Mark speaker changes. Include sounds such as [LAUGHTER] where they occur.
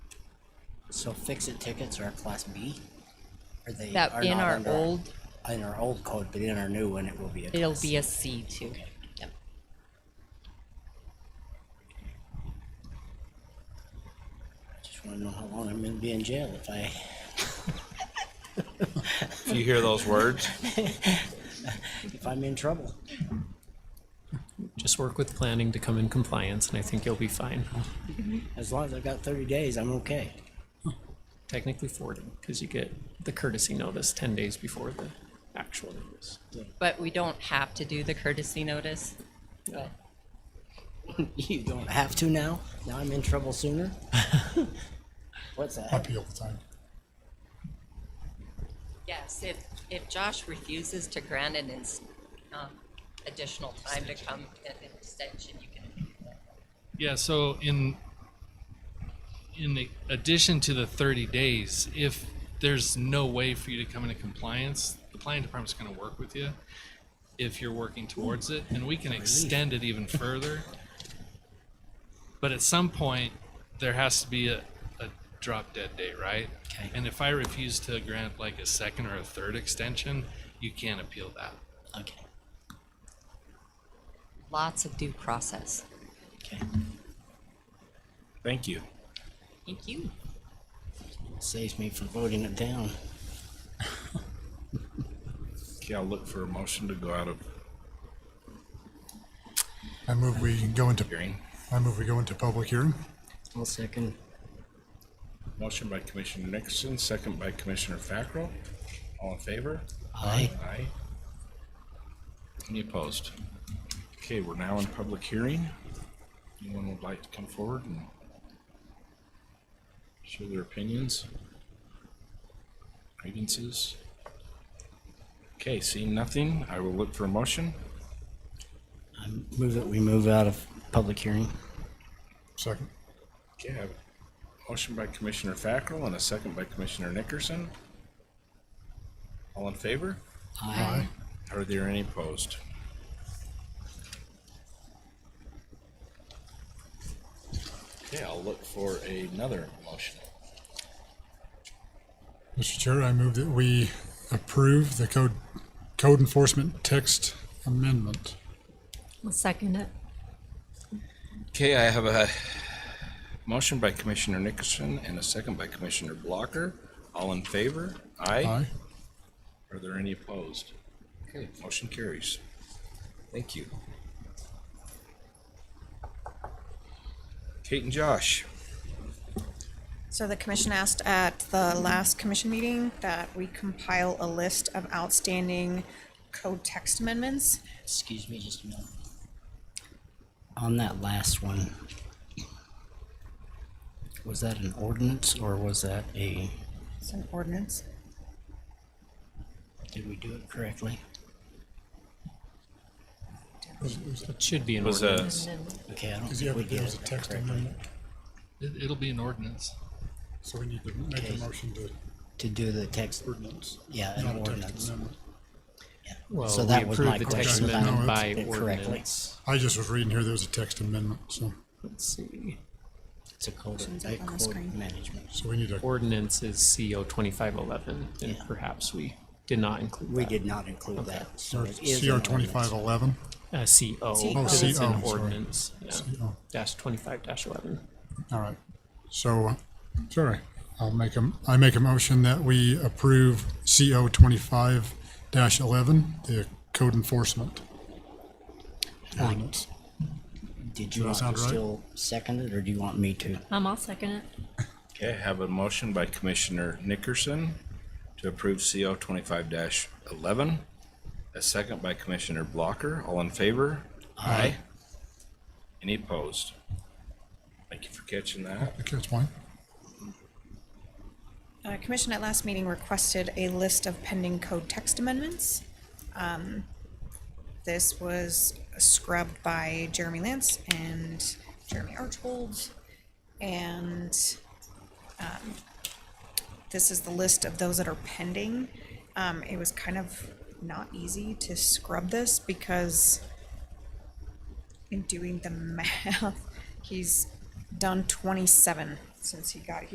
Speaker 1: So fix-it tickets are a class B? Or they
Speaker 2: That
Speaker 1: are
Speaker 2: in
Speaker 1: not
Speaker 2: our
Speaker 1: under
Speaker 2: old-
Speaker 1: In our old code, but in our new one, it will be a
Speaker 2: It'll
Speaker 1: class
Speaker 2: be a C too.
Speaker 1: Okay.
Speaker 2: Yep.
Speaker 1: Just wanna know how long I'm gonna be in jail if I,
Speaker 3: If you hear those words,
Speaker 1: if I'm in trouble.
Speaker 4: Just work with planning to come in compliance and I think you'll be fine.
Speaker 1: As long as I've got thirty days, I'm okay. [LAUGHS]
Speaker 4: Technically forty, because you get the courtesy notice ten days before the actual notice.
Speaker 2: But we don't have to do the courtesy notice.
Speaker 4: Yeah.
Speaker 1: You don't have to now? Now I'm in trouble
Speaker 2: [LAUGHS]
Speaker 1: sooner? What's that?
Speaker 5: Appeal the time.
Speaker 2: Yes, if, if Josh refuses to grant an ins, um, additional time to come, an extension, you can.
Speaker 6: Yeah, so in in the- addition to the 30 days, if there's no way for you to come into compliance, the planning department's going to work with you if you're working towards it, and we can extend it even further. But at some point, there has to be a, a drop dead date, right?
Speaker 1: Okay.
Speaker 6: And if I refuse to grant like a second or a third extension, you can't appeal that.
Speaker 1: Okay,
Speaker 2: Lots of due process.
Speaker 1: okay.
Speaker 3: thank you.
Speaker 2: Thank you.
Speaker 1: Saves me from voting it down.
Speaker 3: Okay, I'll look for a motion to go out of
Speaker 5: I move we go into,
Speaker 3: hearing.
Speaker 5: I move we go into public hearing.
Speaker 1: One second.
Speaker 3: Motion by Commissioner Nixon, second by Commissioner Fackrell. All in favor?
Speaker 1: Aye.
Speaker 3: Aye. Any opposed? Okay, we're now in public hearing. Anyone would like to come forward and share their opinions? Grievances? Okay, seeing nothing, I will look for a motion.
Speaker 1: I move that we move out of public hearing.
Speaker 5: Second.
Speaker 3: Okay, I have a motion by Commissioner Fackrell and a second by Commissioner Nickerson. All in favor?
Speaker 5: Aye.
Speaker 3: Are there any opposed? Okay, I'll look for another motion.
Speaker 5: Mr. Chair, I move that we approve the code, code enforcement text amendment.
Speaker 2: I'll second it.
Speaker 3: Okay, I have a motion by Commissioner Nickerson and a second by Commissioner Blocker. All in favor? Aye.
Speaker 5: Aye.
Speaker 3: Are there any opposed? Okay, motion carries. Thank you. Kate and Josh,
Speaker 7: So the commission asked at the last commission meeting that we compile a list of outstanding code text amendments.
Speaker 1: Excuse me just a minute. On that last one, was that an ordinance or was that a,
Speaker 7: It's an ordinance.
Speaker 1: did we do it correctly?
Speaker 4: It should be an
Speaker 3: was a,
Speaker 4: ordinance.
Speaker 1: Okay, I don't
Speaker 5: Because you
Speaker 1: think
Speaker 5: have
Speaker 1: we
Speaker 5: to do
Speaker 1: did
Speaker 5: as a
Speaker 1: it
Speaker 5: text
Speaker 1: correctly.
Speaker 5: amendment.
Speaker 6: It, it'll be an ordinance.
Speaker 5: So we need to make a motion to
Speaker 1: To do the text,
Speaker 5: ordinance.
Speaker 1: yeah,
Speaker 5: Not
Speaker 1: an
Speaker 5: a text
Speaker 1: ordinance.
Speaker 5: amendment.
Speaker 1: So
Speaker 4: Well, we
Speaker 1: that was my
Speaker 4: approved the text
Speaker 1: question.
Speaker 5: about
Speaker 4: amendment
Speaker 5: it.
Speaker 4: by
Speaker 1: It correctly.
Speaker 4: ordinance.
Speaker 5: I just was reading here, there was a text amendment, so,
Speaker 4: Let's see.
Speaker 1: It's a code,
Speaker 7: It's
Speaker 1: a
Speaker 7: up on the
Speaker 1: code
Speaker 7: screen.
Speaker 1: management.
Speaker 5: so we need to,
Speaker 4: Ordinance is CO twenty-five eleven, and
Speaker 1: Yeah.
Speaker 4: perhaps we did not include
Speaker 1: We
Speaker 4: that.
Speaker 1: did not include that. so
Speaker 5: or
Speaker 1: it is an
Speaker 5: CR twenty-five
Speaker 1: ordinance.
Speaker 5: eleven.
Speaker 4: Uh, CO, because
Speaker 5: Oh,
Speaker 4: it's
Speaker 5: CO,
Speaker 4: an
Speaker 5: sorry.
Speaker 4: ordinance, yeah.
Speaker 5: CO.
Speaker 4: Dash twenty-five dash eleven.
Speaker 5: All right. So, uh, sorry, I'll make a, I make a motion that we approve CO twenty-five dash eleven, the code enforcement ordinance.
Speaker 1: Did you
Speaker 5: Does
Speaker 1: want to
Speaker 5: that sound right?
Speaker 1: still second it or do you want me to?
Speaker 2: Um, I'll second it.
Speaker 3: okay, I have a motion by Commissioner Nickerson to approve CO twenty-five eleven. A second by Commissioner Blocker. All in favor? Aye. Any opposed? Thank you for catching that.
Speaker 5: Okay, that's fine.
Speaker 7: Uh, commission at last meeting requested a list of pending code text amendments. Um, This was scrubbed by Jeremy Lance and Jeremy Archbold. And, um, this is the list of those that are pending. Um, it was kind of not easy to scrub this because [LAUGHS] in doing the math, he's done twenty-seven since he got here.